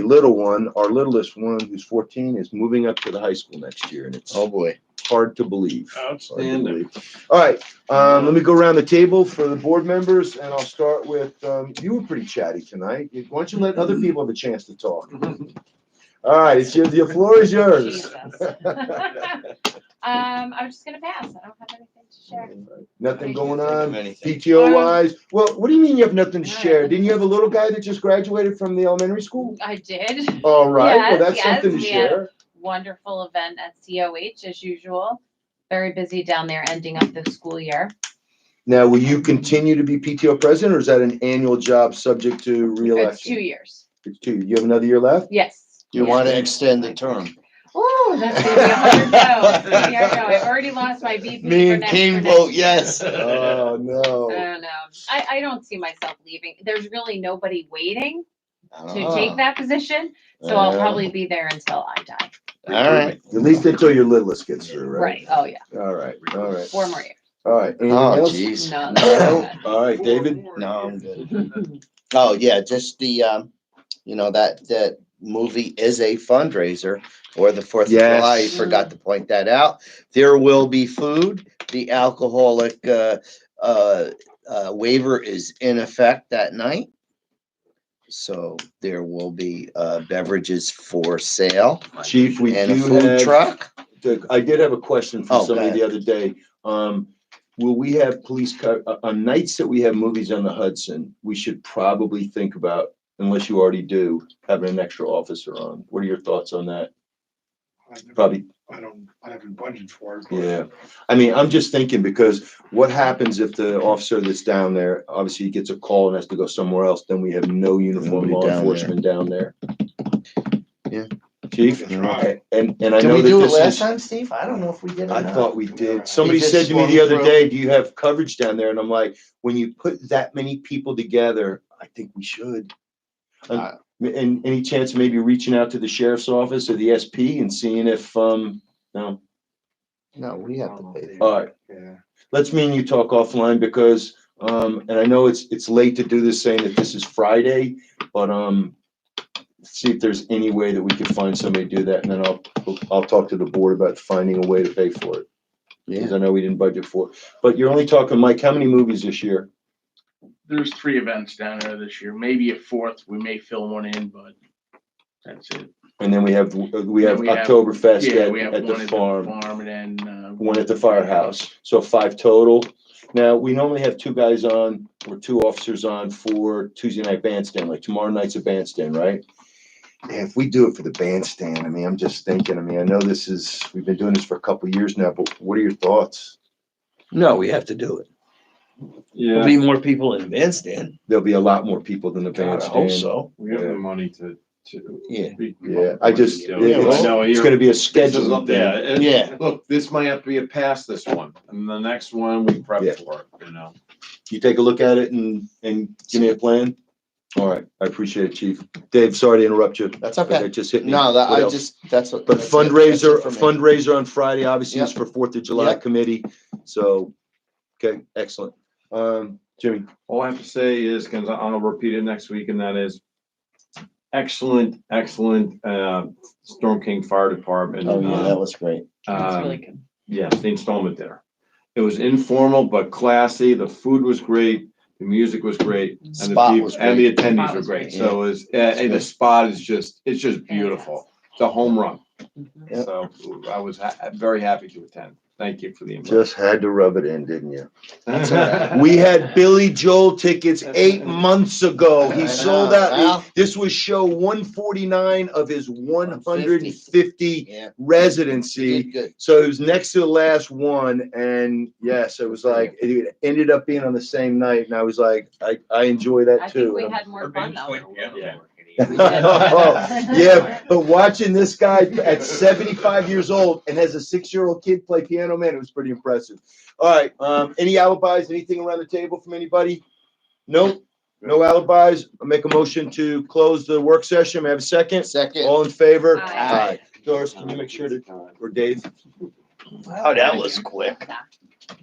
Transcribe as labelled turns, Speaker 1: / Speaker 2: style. Speaker 1: little one, our littlest one, who's fourteen, is moving up to the high school next year, and it's
Speaker 2: Oh, boy.
Speaker 1: hard to believe.
Speaker 3: Oh,
Speaker 1: Hard to
Speaker 4: Outstanding.
Speaker 1: believe. All right, um, let me go around the table for the board members, and I'll start with, um, you were pretty chatty tonight. Why don't you let other people have a chance to talk? All right, it's your, the floor is yours.
Speaker 5: Jesus. Um, I was just gonna pass. I don't have anything to share.
Speaker 1: Nothing going on,
Speaker 2: Anything.
Speaker 1: PTO wise? Well, what do you mean you have nothing to
Speaker 5: All right.
Speaker 1: share? Didn't you have a little guy that just graduated from the elementary school?
Speaker 5: I did.
Speaker 1: All right, well,
Speaker 5: Yes,
Speaker 1: that's
Speaker 5: yes,
Speaker 1: something to
Speaker 5: we had-
Speaker 1: share.
Speaker 5: Wonderful event at COH as usual. Very busy down there ending up the school year.
Speaker 1: Now, will you continue to be PTO president or is that an annual job subject to
Speaker 5: It's two
Speaker 1: reelection?
Speaker 5: years.
Speaker 1: It's two. You have another year left?
Speaker 5: Yes.
Speaker 2: You want to extend the term.
Speaker 5: Oh, that's gonna be a hard no. Yeah, I know. I've already lost my VP
Speaker 2: Me
Speaker 5: for
Speaker 2: and
Speaker 5: next.
Speaker 2: King
Speaker 5: for next
Speaker 2: vote yes.
Speaker 1: Oh,
Speaker 5: I
Speaker 1: no.
Speaker 5: don't know. I, I don't see myself leaving. There's really nobody waiting to
Speaker 2: Ah,
Speaker 5: take that position, so I'll
Speaker 2: Yeah.
Speaker 5: probably be there until I die.
Speaker 2: All right.
Speaker 1: At least until your littlest gets through, right?
Speaker 5: Right, oh yeah,
Speaker 1: All right, all right,
Speaker 5: four more years.
Speaker 1: all right. Anything
Speaker 2: Oh,
Speaker 1: else?
Speaker 2: jeez.
Speaker 5: No,
Speaker 2: No.
Speaker 5: that's
Speaker 1: All right, David?
Speaker 2: No, I'm good. Oh, yeah, just the, um, you know, that, that movie is a fundraiser for the Fourth of
Speaker 1: Yes.
Speaker 2: July. You Forgot to point that out. There will be food. The alcoholic, uh, uh, uh, waiver is in effect that night. So there will be, uh, beverages for sale
Speaker 1: Chief, we
Speaker 2: and a
Speaker 1: do
Speaker 2: food
Speaker 1: have,
Speaker 2: truck.
Speaker 1: the- I did have a question
Speaker 2: Oh,
Speaker 1: from
Speaker 2: go
Speaker 1: somebody the
Speaker 2: ahead.
Speaker 1: other day. Um, will we have police co- uh, on nights that we have movies on the Hudson, we should probably think about, unless you already do, having an extra officer on. What are your thoughts on that? Probably
Speaker 3: I don't, I haven't budgeted for it. but-
Speaker 1: Yeah, I mean, I'm just thinking because what happens if the officer that's down there, obviously he gets a call and has to go somewhere else, then we have no uniform
Speaker 2: Nobody
Speaker 1: law
Speaker 2: down there.
Speaker 1: enforcement down there.
Speaker 2: Yeah.
Speaker 1: Chief,
Speaker 3: That's right.
Speaker 1: and, and I
Speaker 2: Did
Speaker 1: know
Speaker 2: we
Speaker 1: that
Speaker 2: do it last
Speaker 1: this is,
Speaker 2: time, Steve? I don't know if we did or
Speaker 1: I
Speaker 2: not.
Speaker 1: thought we did, somebody
Speaker 2: just
Speaker 1: said to me
Speaker 2: swung
Speaker 1: the other
Speaker 2: through.
Speaker 1: day, do you have coverage down there? And I'm like, when you put that many people together, I think we should.
Speaker 2: Uh,
Speaker 1: And any chance of maybe reaching out to the sheriff's office or the SP and seeing if, um, no?
Speaker 2: No, we have to pay.
Speaker 1: All right.
Speaker 3: Yeah.
Speaker 1: let's me and you talk offline because, um, and I know it's, it's late to do this saying that this is Friday, but, um, see if there's any way that we could find somebody to do that and then I'll, I'll talk to the board about finding a way to pay for it. Cause I know we didn't budget for it. But you're only talking, Mike, how many movies this year?
Speaker 6: There's three events down there this year, maybe a fourth. We may fill one in, but that's it.
Speaker 1: And then we have, we have
Speaker 6: We have-
Speaker 1: Oktoberfest
Speaker 6: Yeah, we
Speaker 1: at,
Speaker 6: have
Speaker 1: at
Speaker 6: one
Speaker 1: the farm,
Speaker 6: Farm and then, uh.
Speaker 1: one at the firehouse. So five total. Now, we normally have two guys on or two officers on for Tuesday night bandstand, like tomorrow night's a bandstand, right? Yeah, if we do it for the bandstand, I mean, I'm just thinking, I mean, I know this is, we've been doing this for a couple of years now, but what are your thoughts?
Speaker 7: No, we have to do it. There'll be more people in the bandstand.
Speaker 1: There'll be a lot more people than the
Speaker 7: God, I hope
Speaker 1: bandstand.
Speaker 7: so.
Speaker 3: We have the money to, to.
Speaker 7: Yeah.
Speaker 3: we-
Speaker 1: Yeah, I just,
Speaker 3: Yeah,
Speaker 1: it's,
Speaker 3: I know,
Speaker 1: it's
Speaker 3: you're-
Speaker 1: gonna be a
Speaker 3: This is
Speaker 1: schedule
Speaker 3: up- Yeah,
Speaker 1: thing.
Speaker 3: and
Speaker 2: Yeah.
Speaker 3: look, this might have to be a pass this one, and the next one we prep
Speaker 1: Yeah.
Speaker 3: for, it, you know.
Speaker 1: You take a look at it and, and give me a plan? All right, I appreciate it, Chief. Dave, sorry to interrupt you.
Speaker 2: That's
Speaker 1: but
Speaker 2: okay.
Speaker 1: It just hit me.
Speaker 2: No, that,
Speaker 1: What
Speaker 2: I
Speaker 1: else?
Speaker 2: just, that's what.
Speaker 1: But
Speaker 2: that's it. That's it
Speaker 1: fundraiser,
Speaker 2: for me.
Speaker 1: fundraiser on Friday, obviously is for Fourth of July
Speaker 2: Yep.
Speaker 1: committee. So, okay, excellent. Um, Jimmy,
Speaker 3: All I have to say is, because I'll repeat it next week, and that is excellent, excellent, uh, Storm King Fire Department.
Speaker 2: Oh, yeah, that
Speaker 3: um,
Speaker 2: was great.
Speaker 5: That's
Speaker 3: um,
Speaker 5: really good.
Speaker 3: Yes, the installment dinner. It was informal but classy. The food was great. The music was great. and the
Speaker 2: Spot
Speaker 3: peop-
Speaker 2: was
Speaker 3: And the attendees were
Speaker 5: was
Speaker 3: great.
Speaker 2: great.
Speaker 3: So it was, and and the spot is just, it's just beautiful. It's a home run.
Speaker 2: Yep.
Speaker 3: So I was ha- very happy to attend. Thank you for the invite.
Speaker 1: just had to rub it in, didn't you?
Speaker 2: That's all right.
Speaker 1: We had Billy Joel tickets eight months ago.
Speaker 2: I
Speaker 1: He sold
Speaker 2: know,
Speaker 1: out.
Speaker 2: Al.
Speaker 1: This was show one forty-nine of his one hundred and fifty
Speaker 2: Yeah.
Speaker 1: residency.
Speaker 2: Did good.
Speaker 1: So it was next to the last one, and yes, it was like it ended up being on the same night, and I was like, I, I enjoy
Speaker 5: I
Speaker 1: that
Speaker 5: think
Speaker 1: too.
Speaker 5: we
Speaker 1: And I'm-
Speaker 5: had more fun though.
Speaker 3: Yeah.
Speaker 1: Yeah, but watching this guy at 75 years old and has a six-year-old kid play piano, man, it was pretty impressive. All right, um, any alibis, anything around the table from anybody? Nope, no alibis. I'll make a motion to close the work session. May I have a second?
Speaker 2: Second.
Speaker 1: All in favor?
Speaker 5: Aye.
Speaker 1: Doris, can you make sure to, or Dave?
Speaker 7: Wow, that Oh, was quick.